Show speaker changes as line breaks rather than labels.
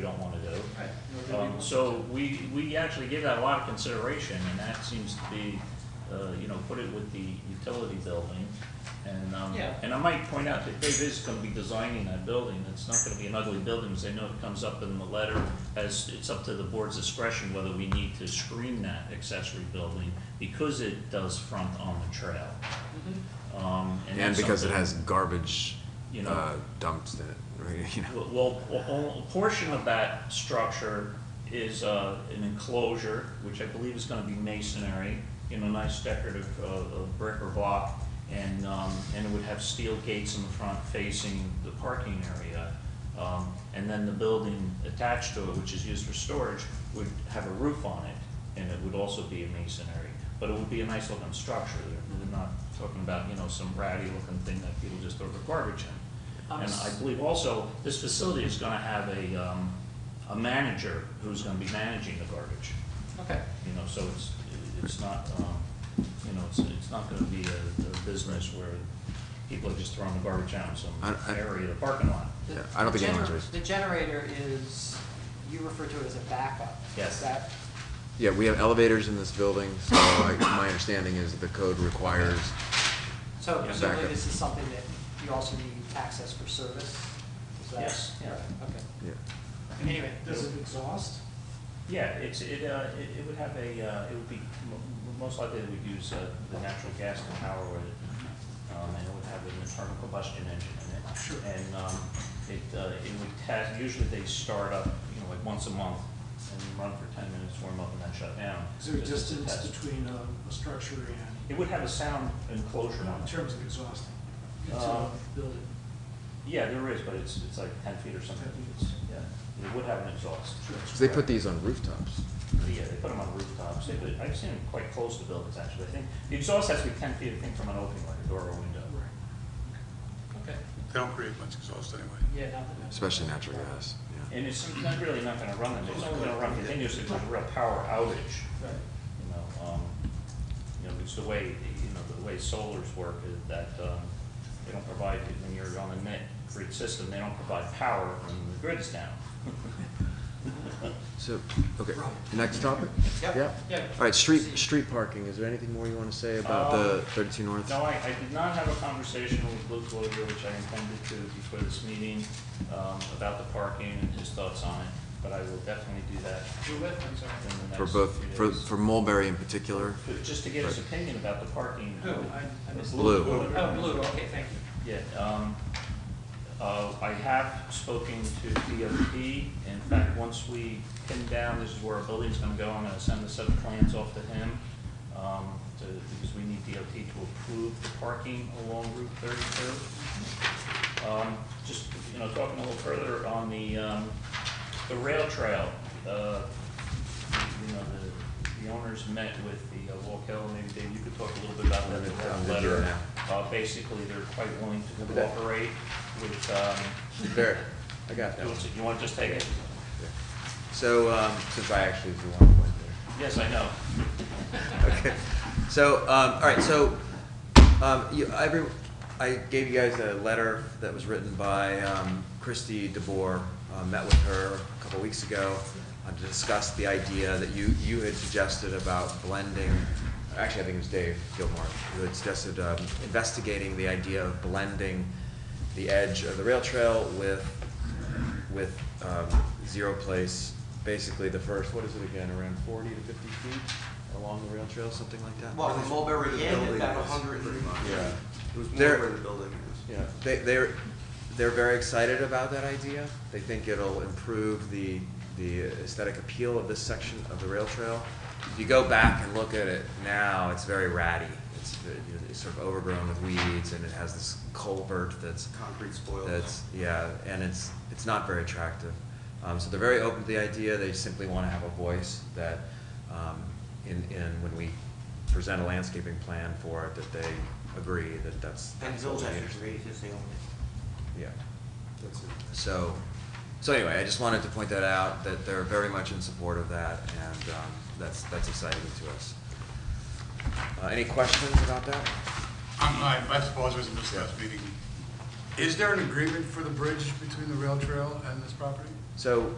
don't wanna do.
Right. nor do we
Um,
want
so we, we actually give that a lot of consideration, and that seems to be, uh, you know, put it with the utility building. And, um,
Yeah.
and I might point out that Dave is gonna be designing that building, it's not gonna be an ugly building, because I know it comes up in the letter, as, it's up to the board's discretion whether we need to screen that accessory building, because it does front on the trail. Um, and
And
that's
because it
something-
has garbage
You know.
uh, dumps in it, right, you know.
Well, well, a- a portion of that structure is uh, an enclosure, which I believe is gonna be masonry, you know, nice decorative uh, uh, brick or block, and, um, and it would have steel gates in the front facing the parking area. Um, And then the building attached to it, which is used for storage, would have a roof on it, and it would also be a masonry. But it would be a nice looking structure, we're not talking about, you know, some ratty looking thing that people just throw their garbage in.
Um,
And I I believe also, this facility is gonna have a, um, a manager who's gonna be managing the garbage,
Okay,
you know, so it's, it's not, um, you know, it's, it's not gonna be a, a business where people are just throwing the garbage out in some
I- I-
area of the parking lot.
The-
Yeah, I don't
the
think anyone's
gener-
raised-
The generator is, you refer to it as a backup.
Yes.
Is that,
Yeah, we have elevators in this building, so like, my understanding is the code requires,
so
Yeah,
presumably
backup.
this is something that you also need access for service? Is that-
Yes.
Yeah, okay.
yeah.
Anyway.
Does it exhaust?
Yeah, it's, it, uh, it, it would have a, uh, it would be, mo- most likely it would use, uh, the natural gas to power with it. Um, and it would have an internal combustion engine in it.
Sure.
And, um, it, uh, it would test, usually they start up, you know, like once a month and run for ten minutes, warm up and then shut down.
Is there a
just to
distance
test.
between a, a structure and,
It would have a sound enclosure on
in
it.
terms of exhausting? It's
Uh,
a building.
Yeah, there is, but it's, it's like ten feet or something.
10 feet.
It's- Yeah, it would have an exhaust.
So they put these on rooftops.
Yeah, they put them on rooftops, they put, I've seen them quite close to buildings, actually, I think, the exhaust has to be ten feet, I think, from an opening, like a door or window.
Okay,
They don't create much exhaust anyway.
yeah, not that.
Especially natural gas, yeah.
And it's not really not gonna run them, it's only gonna run continuously if there's a real power outage,
Right.
you know, um, you know, it's the way, you know, the way solars work is that, um, they don't provide, when you're on a net grid system, they don't provide power when the grid's down.
So, okay, next topic?
Yep,
Yeah?
yeah.
All right, street,
Proceed.
street parking, is there anything more you want to say about the
Um,
thirty-two north?
No, I, I did not have a conversation with Luke Loder, which I intended to before this meeting, um, about the parking and his thoughts on it, but I will definitely do that
Do it, I'm sorry.
in the next.
For both,
few
for,
days.
for Mulberry in particular?
But Just to get his opinion about the parking.
Who? I- I missed-
Blue.
Oh, blue, okay, thank you.
Yeah, um, uh, I have spoken to DOT. In fact, once we pin down, this is where our building's gonna go, I'm gonna send a set of plans off to him. Um, to, because we need DOT to approve the parking along Route thirty-two. Um, just, you know, talking a little further on the, um, the rail trail, uh, you know, the, the owners met with the uh, Walk Hill, maybe Dave, you could talk a little bit about that, they have a
I'm gonna do it
letter.
now.
Uh, basically, they're quite willing to
Look at that.
cooperate with, um,
There, I got
you wanna just take it?
So, um, since I actually was the one who went there.
Yes, I know.
Okay. So, um, all right, so, um, you, every, I gave you guys a letter that was written by, um, Christy DeBoer. Uh, met with her a couple weeks ago, uh, to discuss the idea that you, you had suggested about blending, actually, I think it was Dave Gilmore, who had suggested, um, investigating the idea of blending the edge of the rail trail with, with, um, zero place, basically the first, what is it again, around forty to fifty feet along the rail trail, something like that?
Well, from Mulberry to the
Yeah,
building is
about
a
100
hundred and.
Yeah.
It was
There-
Mulberry to the building is.
Yeah, they, they're, they're very excited about that idea. They think it'll improve the, the aesthetic appeal of this section of the rail trail. If you go back and look at it now, it's very ratty. It's, you know, it's sort of overgrown with weeds and it has this culvert that's
Concrete spoiled.
that's, yeah, and it's, it's not very attractive. Um, so they're very open to the idea, they simply wanna have a voice that, um, in, in, when we present a landscaping plan for it, that they agree that that's.
And
that's
Bill
what we
Jester's
need.
great, he's the only.
Yeah,
That's it.
so, so anyway, I just wanted to point that out, that they're very much in support of that, and, um, that's, that's exciting to us. Uh, any questions about that?
I'm, I, I suppose it was missed last meeting. Is there an agreement for the bridge between the rail trail and this property?
So,